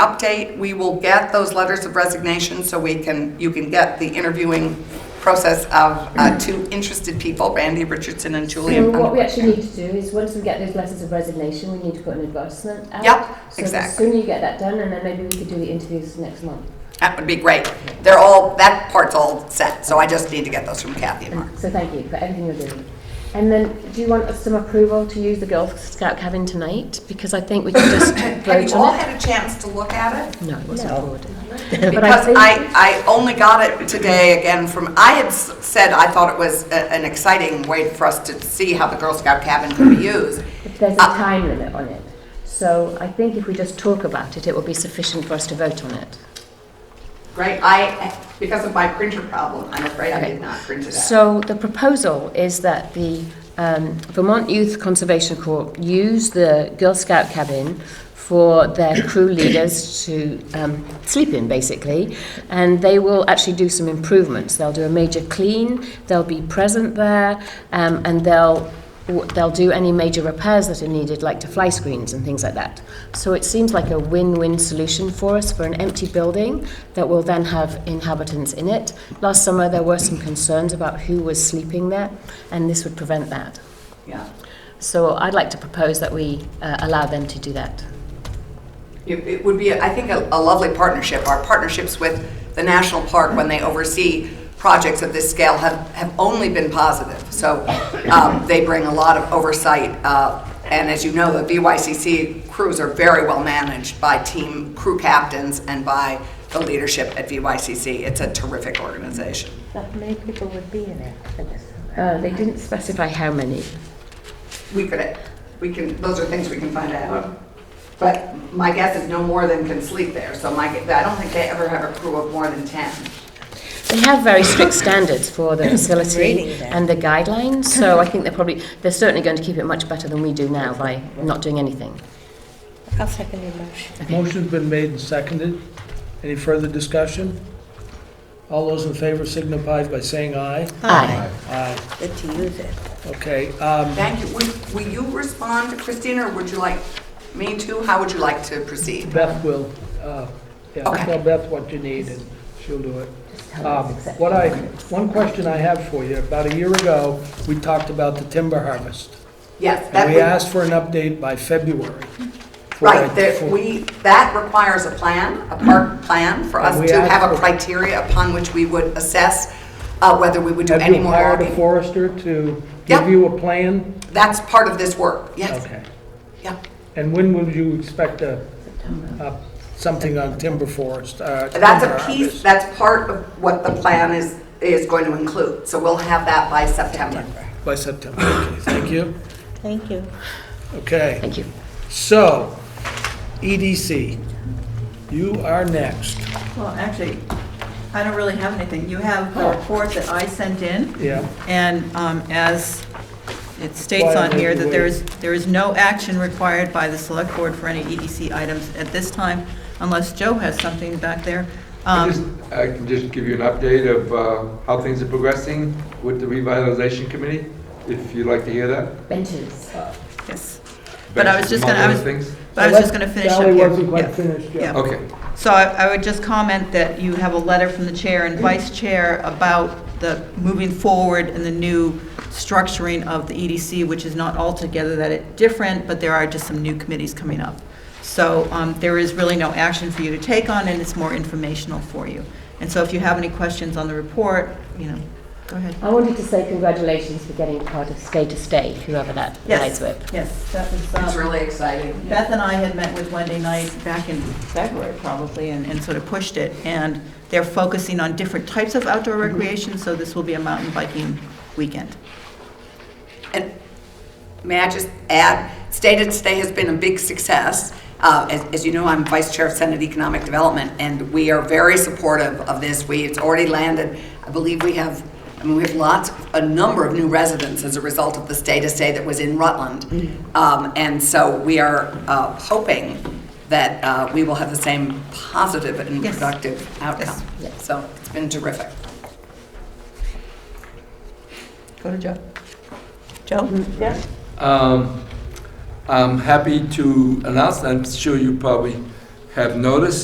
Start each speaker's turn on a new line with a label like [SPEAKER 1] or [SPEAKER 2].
[SPEAKER 1] update. We will get those letters of resignation so we can, you can get the interviewing process of uh, two interested people, Randy Richardson and Um,
[SPEAKER 2] So
[SPEAKER 1] Julian.
[SPEAKER 2] what we actually need to do is, once we get those letters of resignation, we need to put an advertisement out.
[SPEAKER 1] Yep,
[SPEAKER 2] So the
[SPEAKER 1] exactly.
[SPEAKER 2] sooner you get that done, and then maybe we could do the interviews next month.
[SPEAKER 1] That would be great. They're all, that part's all set, so I just need to get those from Kathy and Mark.
[SPEAKER 2] So thank you for everything you're doing. And then, do you want some approval to use the Girl Scout cabin tonight? Because I think we can just
[SPEAKER 1] Have
[SPEAKER 2] vote
[SPEAKER 1] you all
[SPEAKER 2] on it.
[SPEAKER 1] had a chance to look at it?
[SPEAKER 2] No, it wasn't
[SPEAKER 3] No.
[SPEAKER 2] forwarded. But I
[SPEAKER 1] Because
[SPEAKER 2] think-
[SPEAKER 1] I, I only got it today again from, I had s- said I thought it was a- an exciting way for us to see how the Girl Scout cabin could be used.
[SPEAKER 2] But There's a
[SPEAKER 1] Uh,
[SPEAKER 2] time limit on it. So I think if we just talk about it, it will be sufficient for us to vote on it.
[SPEAKER 1] Great, I, because of my printer problem, I'm afraid I did not print it out.
[SPEAKER 2] So the proposal is that the um, Vermont Youth Conservation Corps use the Girl Scout cabin for their crew leaders to um, sleep in, basically, and they will actually do some improvements. They'll do a major clean, they'll be present there, um, and they'll w- they'll do any major repairs that are needed, like to fly screens and things like that. So it seems like a win-win solution for us for an empty building that will then have inhabitants in it. Last summer, there were some concerns about who was sleeping there, and this would prevent that.
[SPEAKER 1] Yeah.
[SPEAKER 2] So I'd like to propose that we uh, allow them to do that.
[SPEAKER 1] It it would be, I think, a a lovely partnership. Our partnerships with the national park, when they oversee projects of this scale, have, have only been positive. So um, they bring a lot of oversight, uh, and as you know, the BYCC crews are very well managed by team crew captains and by the leadership at BYCC. It's a terrific organization.
[SPEAKER 3] How many people would be in it for this?
[SPEAKER 2] Uh, They didn't specify how many.
[SPEAKER 1] We could, we can, those are things we can find out. But my guess is no more than can sleep there, so my, gue- I don't think they ever have a crew of more than 10.
[SPEAKER 2] They have very strict standards for the facility
[SPEAKER 3] reading that.
[SPEAKER 2] and the guidelines, so I think they're probably, they're certainly going to keep it much better than we do now by not doing anything.
[SPEAKER 3] I'll second your motion.
[SPEAKER 4] Motion's been made and seconded. Any further discussion? All those in favor signify by saying aye.
[SPEAKER 2] Aye.
[SPEAKER 4] Aye.
[SPEAKER 3] Good to use it.
[SPEAKER 4] Okay, um,
[SPEAKER 1] Thank you. Would- Will you respond, Christina, or would you like me to? How would you like to proceed?
[SPEAKER 4] Beth will, uh, yeah,
[SPEAKER 1] Okay.
[SPEAKER 4] tell Beth what you need and she'll do it.
[SPEAKER 2] tell her
[SPEAKER 4] Um,
[SPEAKER 2] it's accepted.
[SPEAKER 4] What I, one question I have for you, about a year ago, we talked about the timber harvest.
[SPEAKER 1] Yes, that
[SPEAKER 4] And we
[SPEAKER 1] would,
[SPEAKER 4] asked for an update by February. for-
[SPEAKER 1] right, that
[SPEAKER 4] for-
[SPEAKER 1] we, that requires a plan, a park plan for us
[SPEAKER 4] And we
[SPEAKER 1] to
[SPEAKER 4] asked
[SPEAKER 1] have a
[SPEAKER 4] for-
[SPEAKER 1] criteria upon which we would assess uh, whether we would do
[SPEAKER 4] Have
[SPEAKER 1] any
[SPEAKER 4] you
[SPEAKER 1] more
[SPEAKER 4] hired a
[SPEAKER 1] logging.
[SPEAKER 4] forester to
[SPEAKER 1] Yeah.
[SPEAKER 4] give you a plan?
[SPEAKER 1] That's part of this work, yes,
[SPEAKER 4] Okay.
[SPEAKER 1] yeah.
[SPEAKER 4] And when would you expect a, a- something on timber forest? uh,
[SPEAKER 1] That's
[SPEAKER 4] timber
[SPEAKER 1] a piece,
[SPEAKER 4] harvest?
[SPEAKER 1] that's part of what the plan is, is going to include. So we'll have that by September.
[SPEAKER 4] By September, okay, thank you.
[SPEAKER 3] Thank you.
[SPEAKER 4] Okay,
[SPEAKER 2] Thank you.
[SPEAKER 4] so, EDC, you are next.
[SPEAKER 5] Well, actually, I don't really have anything. You have the report that I sent in.
[SPEAKER 4] Yeah.
[SPEAKER 5] And um, as it states on here, that there is, there is no action required by the select board for any EDC items at this time, unless Joe has something back there.
[SPEAKER 6] I
[SPEAKER 5] Um,
[SPEAKER 6] just- I can just give you an update of uh, how things are progressing with the revitalization committee, if you'd like to hear that.
[SPEAKER 2] Benches.
[SPEAKER 5] Yes. But I was just gonna, I was,
[SPEAKER 6] Among other things.
[SPEAKER 5] but I was just gonna finish up here.
[SPEAKER 4] Sally wasn't quite
[SPEAKER 5] Yeah.
[SPEAKER 4] finished yet.
[SPEAKER 5] Yeah.
[SPEAKER 6] Okay,
[SPEAKER 5] So I I would just comment that you have a letter from the chair and vice chair about the moving forward and the new structuring of the EDC, which is not altogether that it different, but there are just some new committees coming up. So um, there is really no action for you to take on, and it's more informational for you. And so if you have any questions on the report, you know, go ahead.
[SPEAKER 2] I wanted to say congratulations for getting part of Stay to Stay, whoever that
[SPEAKER 5] Yes.
[SPEAKER 2] lies with.
[SPEAKER 5] Yes, that was. um,
[SPEAKER 1] It's really exciting.
[SPEAKER 5] Beth and I had met with Wendy Knight back in February probably and, and sort of pushed it. And they're focusing on different types of outdoor recreation, so this will be a mountain biking weekend.
[SPEAKER 1] And may I just add, State and Stay has been a big success. Uh, As as you know, I'm Vice Chair of Senate Economic Development, and we are very supportive of this. We, it's already landed, I believe we have, I mean, we have lots, a number of new residents as a result of the State and Stay that was in Rutland. Um, And so we are uh, hoping that uh, we will have the same positive and
[SPEAKER 5] Yes.
[SPEAKER 1] productive outcome.
[SPEAKER 2] Yes.
[SPEAKER 1] So it's been terrific.
[SPEAKER 5] Go to Joe. Joe? Yeah.
[SPEAKER 6] Um, I'm happy to announce, and I'm sure you probably have noticed